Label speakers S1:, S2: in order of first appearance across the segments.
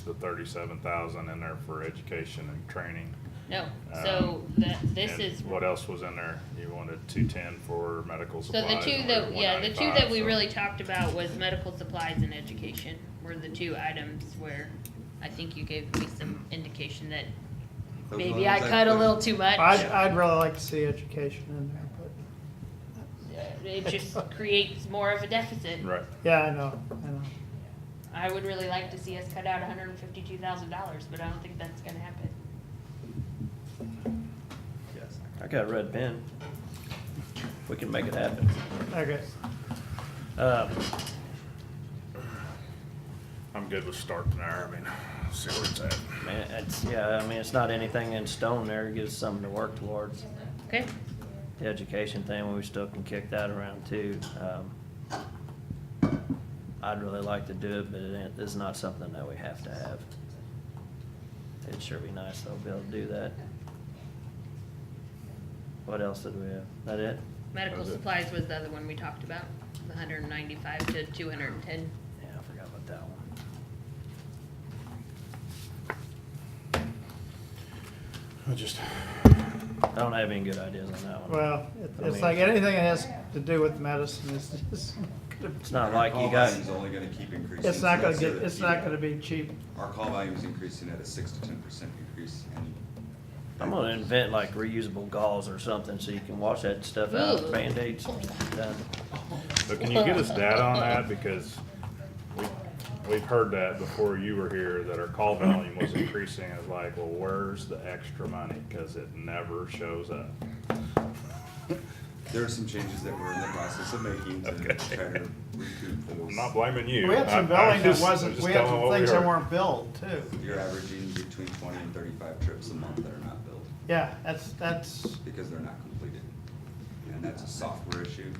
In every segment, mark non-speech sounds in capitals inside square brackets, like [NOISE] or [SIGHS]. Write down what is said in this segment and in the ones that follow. S1: the thirty-seven thousand in there for education and training.
S2: No, so that, this
S1: Um, And
S2: is,
S1: What else was in there? You wanted two-ten for medical
S2: so
S1: supplies.
S2: the two
S1: and
S2: that,
S1: we're
S2: yeah, the two that we
S1: 195, so-
S2: really talked about was medical supplies and education were the two items where I think you gave me some indication that
S3: Those
S2: maybe I
S3: ones
S2: cut a little too much.
S4: I'd, I'd really like to see education in there, but,
S2: Uh, It
S3: [LAUGHS]
S2: just creates more of a deficit.
S1: Right.
S4: yeah, I know, I know.
S2: I would really like to see us cut out hundred and fifty-two thousand dollars, but I don't think that's gonna happen.
S3: Yes.
S5: I got a red pen. We can make it happen.
S4: Okay,
S5: Um,
S1: I'm good with starting there. I mean, [SIGHS] see where it's at.
S5: man, it's, yeah, I mean, it's not anything in stone there. It gives us something to work towards.
S2: Okay,
S5: The education thing, we still can kick that around too. Um, I'd really like to do it, but it ain't, it's not something that we have to have. It'd sure be nice though, be able to do that. What else did we have? That it?
S2: medical
S1: That's it.
S2: supplies was the other one we talked about, the hundred and ninety-five to two hundred
S1: [LAUGHS]
S2: and ten.
S5: Yeah, I forgot about that one.
S1: I just,
S5: I don't have any good ideas on that one.
S4: well, it-
S5: I
S4: it's
S5: mean-
S4: like anything that has to do with medicine is just,
S5: It's not like
S3: Our
S5: you
S3: call
S5: got,
S3: volume's only gonna keep increasing.
S4: it's not gonna
S3: so
S4: get,
S3: that
S4: it's
S3: you-
S4: not gonna be cheap.
S3: Our call volume is increasing at a six to ten percent increase. annually.
S5: I'm gonna invent like reusable gauze or something so you can wash that stuff
S2: Ooh. [LAUGHS]
S5: out, Band-Aids. done.
S1: but can you get us data on
S2: [LAUGHS]
S1: that? Because we, we've heard that before you were here, that our call volume was increasing. It's like, well, where's the extra money? Cause it never shows up.
S3: There are some changes that we're in the process of making to
S1: Okay.
S3: try to recoup
S1: I'm
S5: [LAUGHS]
S3: those.
S1: not blaming you.
S4: We had
S1: I- I'm
S4: some billing that
S1: just- I'm
S4: wasn't,
S1: just
S4: we had
S1: telling
S4: some
S1: what we
S4: things that
S1: heard.
S4: weren't billed too.
S3: You're averaging between twenty and thirty-five trips a month that are not billed
S4: Yeah, that's, that's, [LAUGHS]
S3: because they're not completed. And that's a software issue,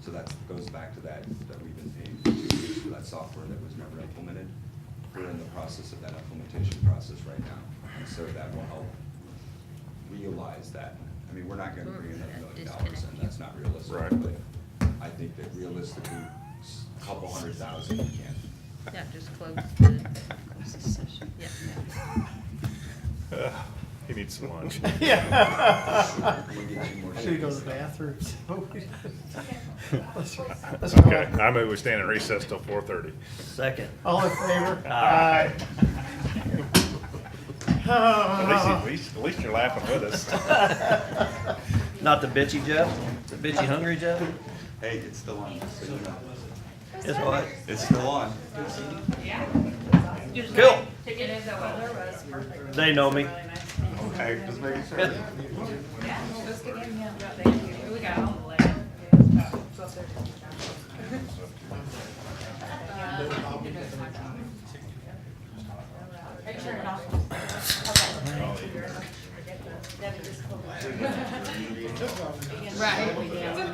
S3: so that goes back to that, that we've been paying for two years for that software that was never implemented. We're in the process of that implementation process right now, and so that will help realize that. I mean, we're not gonna bring in a million dollars, and that's not realistic.
S1: Right.
S3: But I think that realistically, s- a couple hundred thousand you can.
S2: Yeah, just close
S1: [LAUGHS]
S2: the. Yeah.
S1: Ugh, He needs some
S4: [LAUGHS]
S1: lunch.
S4: yeah.
S3: We'll get you more
S4: Should we go to
S3: shifts.
S4: the bathroom? [LAUGHS] Let's- let's go.
S1: Okay, I move we stand in recess till four thirty.
S5: Second. [LAUGHS]
S4: All in favor?
S5: Aye.
S1: [LAUGHS] At least, at least you're laughing with [LAUGHS] us.
S5: Not the bitchy Jeff, the bitchy hungry Jeff?
S3: Hey, it's still on, just so you know.
S5: Guess what?
S3: It's still on.
S5: Cool.
S2: the weather was perfect.
S5: They know me.
S3: Okay, just making sure.
S2: We got all the way. Right.